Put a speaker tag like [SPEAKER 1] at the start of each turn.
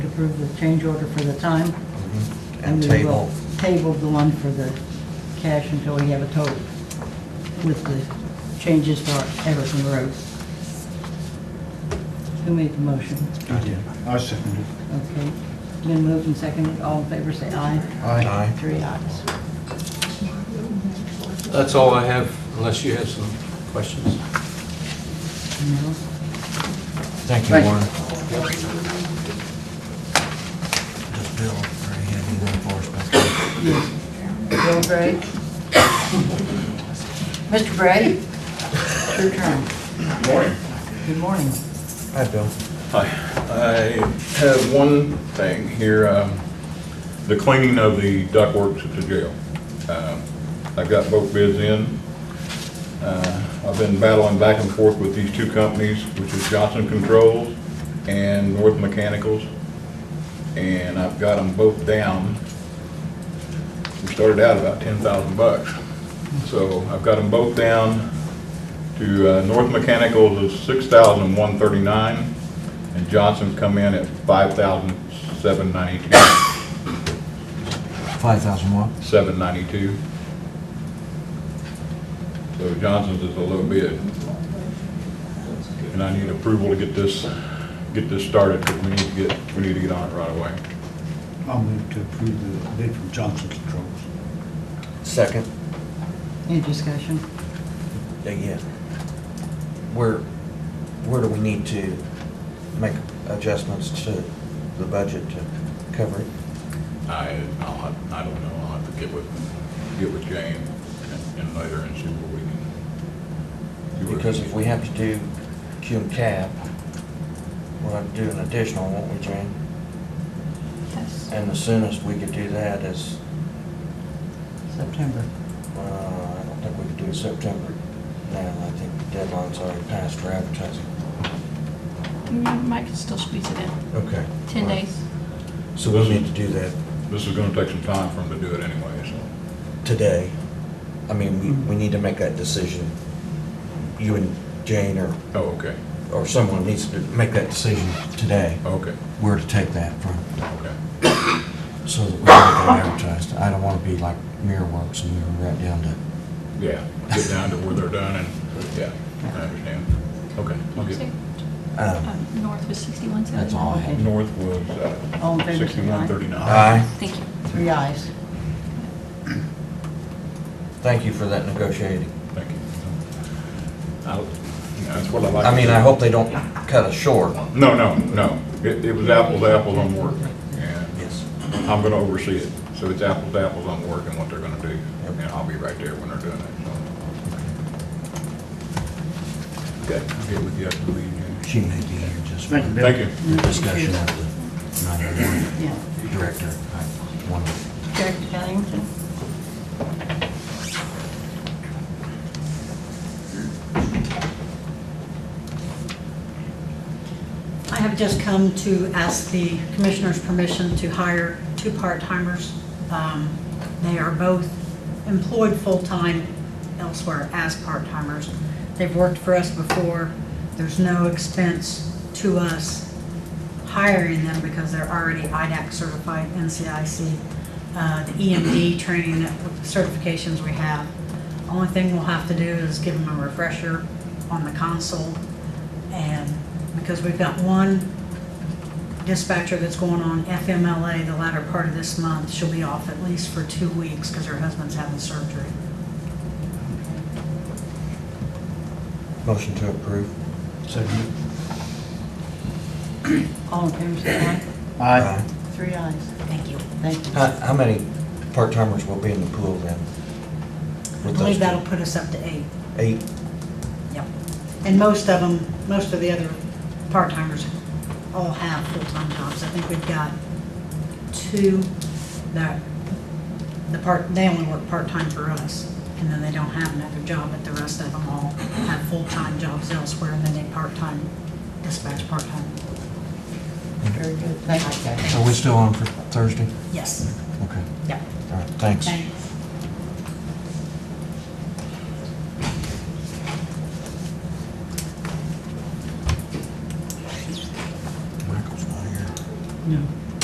[SPEAKER 1] approve the change order for the time.
[SPEAKER 2] And
[SPEAKER 1] we
[SPEAKER 2] table,
[SPEAKER 1] will Table the one for the cash until we have a total with the changes for Everton Road. Who made the motion?
[SPEAKER 3] I second it.
[SPEAKER 1] Okay. Been moved and seconded. All in favor, say aye.
[SPEAKER 2] aye.
[SPEAKER 1] Three ayes.
[SPEAKER 4] That's all I have, unless you have some questions.
[SPEAKER 1] No.
[SPEAKER 2] Thank you,
[SPEAKER 3] Thank you.
[SPEAKER 2] Warren. Does Bill, or he had anything for us back there?
[SPEAKER 1] Yes. Bill Bray? Mr. Bray? It's your turn.
[SPEAKER 5] Morning.
[SPEAKER 1] Good morning.
[SPEAKER 2] Hi, Bill.
[SPEAKER 5] Hi. I have one thing here, um, the cleaning of the ductworks at the jail. Um, I've got both bids in. Uh, I've been battling back and forth with these two companies, which is Johnson Controls and North Mechanicals, and I've got them both down. We started out about 10,000 bucks. So I've got them both down to uh, North Mechanicals is six thousand one thirty-nine, and Johnson's come in at five thousand seven ninety-two,
[SPEAKER 2] Five thousand what?
[SPEAKER 5] seven ninety-two. So Johnson's is a little bid. And I need approval to get this, get this started, because we need to get, we need to get on it right away.
[SPEAKER 3] I'll move to approve the bid from Johnson Controls.
[SPEAKER 2] Second.
[SPEAKER 1] Any discussion?
[SPEAKER 2] Yeah, Yeah. Where, where do we need to make adjustments to the budget to cover it?
[SPEAKER 5] I, I'll, have- I don't know, I'll have to get with, get with Jane and- and later and see what we can. see what we can
[SPEAKER 2] Because if
[SPEAKER 5] do.
[SPEAKER 2] we have to do Q and cap, we'll have to do an additional, won't we, Jane?
[SPEAKER 1] Yes.
[SPEAKER 2] And the soonest we could do that is,
[SPEAKER 1] September.
[SPEAKER 2] uh, I don't think we could do it September now. I think the deadline's already passed for advertising.
[SPEAKER 6] Mm, Mike can still squeeze it in.
[SPEAKER 2] Okay.
[SPEAKER 6] 10 days.
[SPEAKER 2] So we'll need to do that
[SPEAKER 5] This is gonna take some time for them to do it anyway, so.
[SPEAKER 2] today. I mean, we, we need to make that decision. You and Jane or,
[SPEAKER 5] Oh, okay,
[SPEAKER 2] or someone needs to make that decision today,
[SPEAKER 5] okay,
[SPEAKER 2] where to take that from,
[SPEAKER 5] okay.
[SPEAKER 2] so that we can get it advertised. I don't want to be like Mirror Works and we were right down to
[SPEAKER 5] Yeah, get down to where they're done and, yeah, I understand. Okay, I'll get,
[SPEAKER 2] Um,
[SPEAKER 6] Um, North was 61,
[SPEAKER 2] That's all I have.
[SPEAKER 1] Okay.
[SPEAKER 5] north was, uh,
[SPEAKER 1] All in favor, say
[SPEAKER 5] sixty-one
[SPEAKER 1] aye.
[SPEAKER 5] thirty-nine.
[SPEAKER 2] Aye.
[SPEAKER 6] Thank you.
[SPEAKER 1] Three ayes.
[SPEAKER 2] Thank you for that negotiating.
[SPEAKER 5] Thank you. I'll- That's what I like.
[SPEAKER 2] I mean, I hope they don't cut us short.
[SPEAKER 5] No, no, no, it, it was apples to apples on work, and
[SPEAKER 2] Yes.
[SPEAKER 5] I'm gonna oversee it, so it's apples to apples on work and what they're gonna do, and I'll be right there when they're doing it, so. Okay, I'll get with you after the meeting.
[SPEAKER 2] She may be here just for
[SPEAKER 3] Thank you, Bill.
[SPEAKER 5] Thank you.
[SPEAKER 2] the discussion of the 911
[SPEAKER 1] Yeah.
[SPEAKER 2] director. I wonder-
[SPEAKER 1] Director Pennington?
[SPEAKER 7] I have just come to ask the commissioner's permission to hire two part-timers. Um, They are both employed full-time elsewhere as part-timers. They've worked for us before. There's no expense to us hiring them because they're already IDAC certified, NCIC, uh, the EMD training that- certifications we have. Only thing we'll have to do is give them a refresher on the console and because we've got one dispatcher that's going on FMLA the latter part of this month, she'll be off at least for two weeks because her husband's having surgery.
[SPEAKER 2] Motion to approve.
[SPEAKER 3] Second.
[SPEAKER 1] All in favor, say aye.
[SPEAKER 3] Aye.
[SPEAKER 1] Three ayes.
[SPEAKER 7] Thank you.
[SPEAKER 1] Thank you.
[SPEAKER 2] How, how many part-timers will be in the pool then?
[SPEAKER 7] I
[SPEAKER 2] With those
[SPEAKER 7] believe
[SPEAKER 2] two?
[SPEAKER 7] that'll put us up to eight.
[SPEAKER 2] Eight?
[SPEAKER 7] Yep. And most of them, most of the other part-timers all have full-time jobs. I think we've got two that, the part, they only work part-time for us, and then they don't have another job, but the rest of them all have full-time jobs elsewhere, and then they part-time, dispatch part-time.
[SPEAKER 1] Very good. Thank you.
[SPEAKER 2] Are we still on for Thursday?
[SPEAKER 7] Yes,
[SPEAKER 2] Okay,
[SPEAKER 7] yep,
[SPEAKER 2] all right, thanks.
[SPEAKER 7] thanks.